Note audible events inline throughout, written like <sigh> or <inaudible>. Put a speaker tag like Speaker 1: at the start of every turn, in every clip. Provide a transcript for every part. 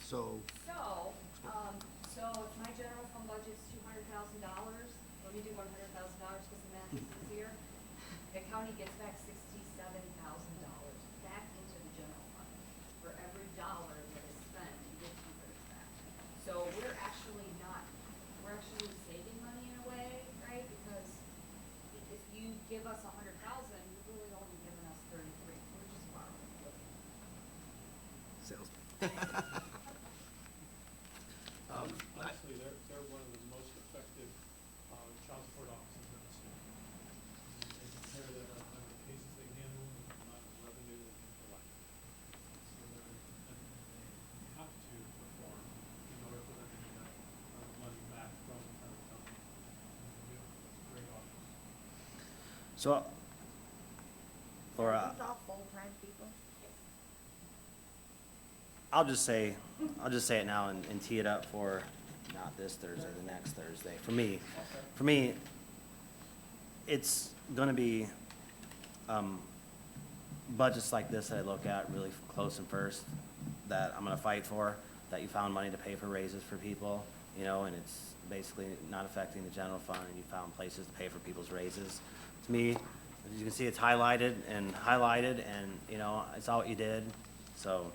Speaker 1: So,
Speaker 2: So, um, so if my general fund budget's two hundred thousand dollars, let me do one hundred thousand dollars because the math is
Speaker 1: Hmm.
Speaker 2: easier. The county gets back sixty-seven thousand dollars back into the general fund. For every dollar that is spent, you get two hundred back. So we're actually not, we're actually saving money in a way, right? Because if you give us a hundred thousand, you're really only giving us thirty-three. We're just borrowing.
Speaker 1: sales. Um, I-
Speaker 3: Honestly, they're, they're one of the most effective uh, child support officers in the state. And They compare that on how many cases they handle and the amount of revenue they can collect. So they're, and they have to perform in order for them to get that uh, money back from the federal government. And they do. It's a Great office.
Speaker 4: So, Laura, uh,
Speaker 5: It's all full-time people?
Speaker 4: I'll just say, I'll just say it now and, and tee it up for not this Thursday, the next Thursday. For me, for me, it's gonna be, um, budgets like this that I look at really close and first, that I'm gonna fight for, that you found money to pay for raises for people, you know, and it's basically not affecting the general fund, and you found places to pay for people's raises. To me, as you can see, it's highlighted and highlighted, and, you know, I saw what you did, so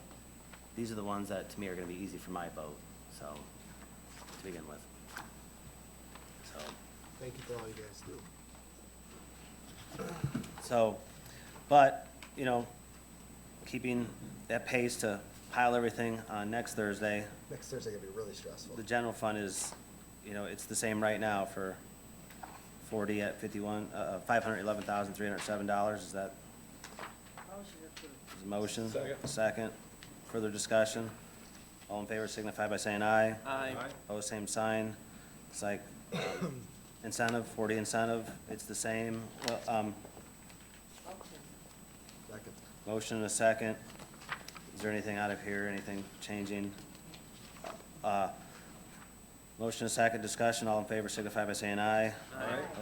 Speaker 4: these are the ones that, to me, are gonna be easy for my vote, so, to begin with. So,
Speaker 1: Thank you for all you guys do.
Speaker 4: so, but, you know, keeping that pace to pile everything on next Thursday,
Speaker 1: Next Thursday gonna be really stressful.
Speaker 4: the general fund is, you know, it's the same right now for forty at fifty-one, uh, five hundred eleven thousand, three hundred seven dollars, is that
Speaker 5: Motion approved.
Speaker 4: is the motion? Second. further discussion? All in favor signify by saying aye.
Speaker 6: Aye.
Speaker 4: Oh, same sign, it's like um, incentive, forty incentive, it's the same, well, um,
Speaker 5: Motion.
Speaker 1: Second.
Speaker 4: Motion and a second. Is there anything out of here, anything changing? Uh, Motion and a second, discussion, all in favor signify by saying aye.
Speaker 6: Aye.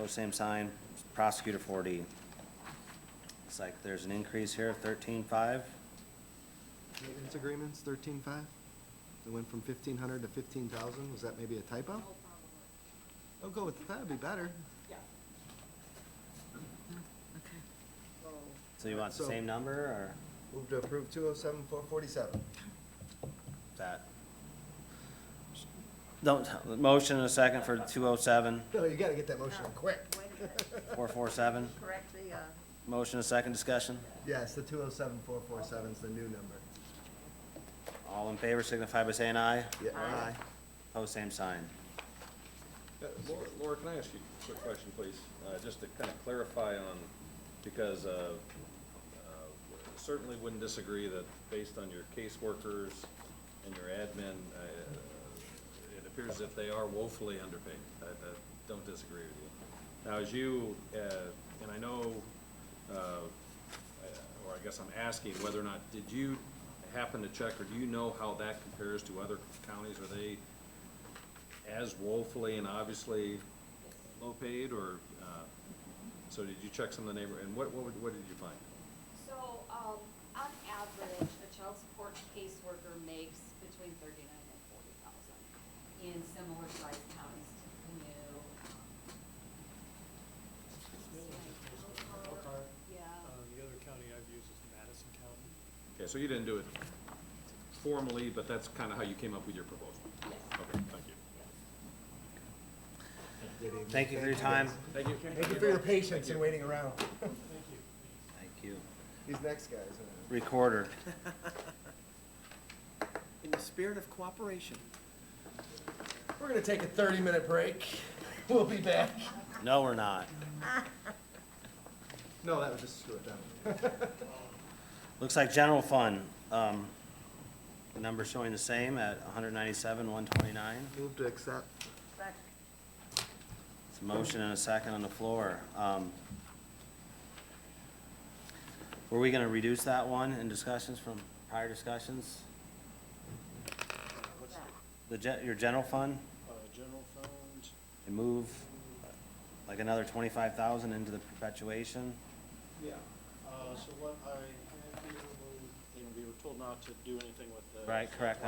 Speaker 4: Oh, same sign. Prosecutor four D. It's like there's an increase here of thirteen-five.
Speaker 1: Maintenance agreements, thirteen-five? It went from fifteen hundred to fifteen thousand, was that maybe a typo?
Speaker 2: Oh, probably.
Speaker 1: Oh, go with, that'd be better.
Speaker 2: Yeah.
Speaker 5: So,
Speaker 4: So you want the
Speaker 1: So-
Speaker 4: same number, or
Speaker 1: Move to approve two oh seven four forty-seven.
Speaker 4: is that? Don't, motion and a second for two oh seven,
Speaker 1: No, you gotta get that motion in quick.
Speaker 5: Wait a minute,
Speaker 4: four four seven.
Speaker 5: correct the, uh,
Speaker 4: Motion and a second, discussion.
Speaker 1: Yes, the two oh seven four four seven's the new number.
Speaker 4: All in favor signify by saying aye.
Speaker 1: Yeah, aye.
Speaker 5: Aye.
Speaker 4: Oh, same sign.
Speaker 7: Uh, Laura, Laura, can I ask you a quick question, please? Uh, Just to kind of clarify on, because uh, uh, certainly wouldn't disagree that based on your caseworkers and your admin, uh, it appears that they are woefully underpaid. I I don't disagree with you. Now, as you, uh, and I know, uh, I- or I guess I'm asking whether or not, did you happen to check, or do you know how that compares to other counties? Are they as woefully and obviously low paid, or, uh, so did you check some of the neighbor, and what, what, would- what did you find?
Speaker 2: So, um, on average, a child support caseworker makes between thirty-nine and forty thousand in similar sized counties to Canoe. um,
Speaker 3: Elkhart,
Speaker 2: Yeah,
Speaker 3: uh, the other county I've used is Madison County.
Speaker 7: Okay, so you didn't do it formally, but that's kind of how you came up with your proposal?
Speaker 2: yes,
Speaker 7: Okay, thank you.
Speaker 2: yes.
Speaker 1: Good evening.
Speaker 4: Thank you for your time.
Speaker 7: Thank you.
Speaker 1: Thank you for your patience and waiting around.
Speaker 3: Thank you.
Speaker 4: Thank you.
Speaker 1: These next guys. uh,
Speaker 4: Recorder.
Speaker 6: In the spirit of cooperation.
Speaker 1: We're gonna take a thirty-minute break. <laughs> We'll be back.
Speaker 4: No, we're not.
Speaker 1: No, that was just screw it down.
Speaker 4: Looks like general fund, um, number showing the same at hundred ninety-seven, one twenty-nine.
Speaker 1: Move to accept.
Speaker 5: second.
Speaker 4: It's a motion and a second on the floor. Um, Were we gonna reduce that one in discussions from prior discussions?
Speaker 3: What's the,
Speaker 4: The gen, your general fund,
Speaker 3: uh, general fund?
Speaker 4: and move uh, like another twenty-five thousand into the perpetuation?
Speaker 3: Yeah, uh, so what I, had here was- and we were told not to do anything with the.
Speaker 4: Right, correct,